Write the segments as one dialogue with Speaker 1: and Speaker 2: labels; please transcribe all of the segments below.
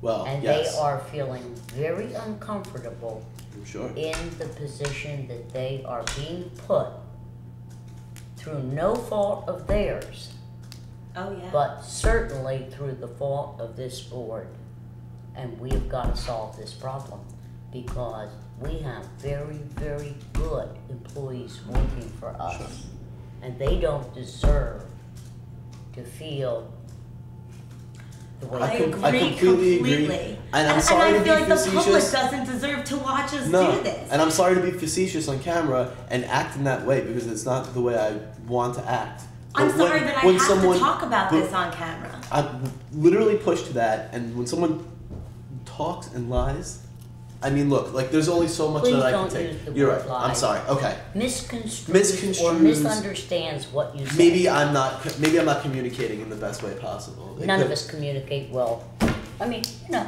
Speaker 1: Well,
Speaker 2: And they
Speaker 1: Oh, yes,
Speaker 2: are feeling very uncomfortable
Speaker 1: I'm sure.
Speaker 2: in the position that they are being put through no fault of theirs,
Speaker 3: Oh, yeah.
Speaker 2: but certainly through the fault of this board. And we have got to solve this problem because we have very, very good employees working for us. And they don't deserve to feel the way
Speaker 3: I
Speaker 1: I
Speaker 2: they
Speaker 1: com-
Speaker 3: agree
Speaker 1: I completely agree.
Speaker 3: completely.
Speaker 1: And I'm sorry
Speaker 3: and I
Speaker 1: to
Speaker 3: feel
Speaker 1: be
Speaker 3: like the public
Speaker 1: facetious.
Speaker 3: doesn't deserve to watch us do this.
Speaker 1: and I'm sorry to be facetious on camera and act in that way because it's not the way I want to act.
Speaker 3: I'm
Speaker 1: But when-
Speaker 3: sorry that I
Speaker 1: when
Speaker 3: have
Speaker 1: someone-
Speaker 3: to talk about
Speaker 1: but
Speaker 3: this on camera.
Speaker 1: I'm literally pushed to that, and when someone talks and lies, I mean, look, like there's only so much
Speaker 2: Please
Speaker 1: that I
Speaker 2: don't
Speaker 1: can take.
Speaker 2: use the
Speaker 1: You're
Speaker 2: word
Speaker 1: right. I'm
Speaker 2: lie.
Speaker 1: sorry. Okay.
Speaker 2: misconstrues or
Speaker 1: Misconstrues.
Speaker 2: misunderstands what you say.
Speaker 1: Maybe I'm not. Maybe I'm not communicating in the best way possible. It
Speaker 2: None of
Speaker 1: could-
Speaker 2: us communicate well. I mean, you know,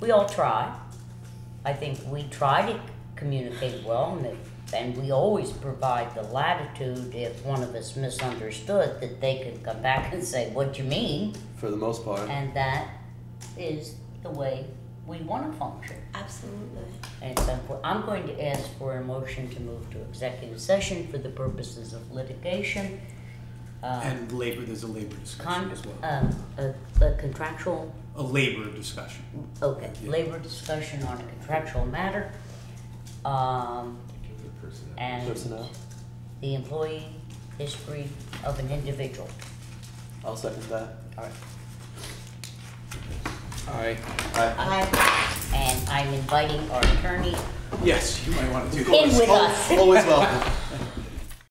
Speaker 2: we all try. I think we try to communicate well, and, if, and we always provide the latitude if one of us misunderstood that they could come back and say, "What you mean?"
Speaker 1: for the most part.
Speaker 2: And that is the way we want to function.
Speaker 3: Absolutely.
Speaker 2: And so for- I'm going to ask for a motion to move to executive session for the purposes of litigation. uh,
Speaker 4: And labor, there's a labor discussion
Speaker 2: Con,
Speaker 4: as well.
Speaker 2: um, a, a contractual,
Speaker 4: A labor discussion.
Speaker 2: okay,
Speaker 4: Yeah.
Speaker 2: labor discussion on a contractual matter. Um, and
Speaker 1: Personnel.
Speaker 2: the employee history of an individual.
Speaker 1: I'll second that.
Speaker 2: All right.
Speaker 4: All right.
Speaker 1: Alright.
Speaker 2: And I'm inviting our attorney
Speaker 4: Yes, you might want to do
Speaker 2: in
Speaker 4: that.
Speaker 2: with us.
Speaker 1: Always welcome.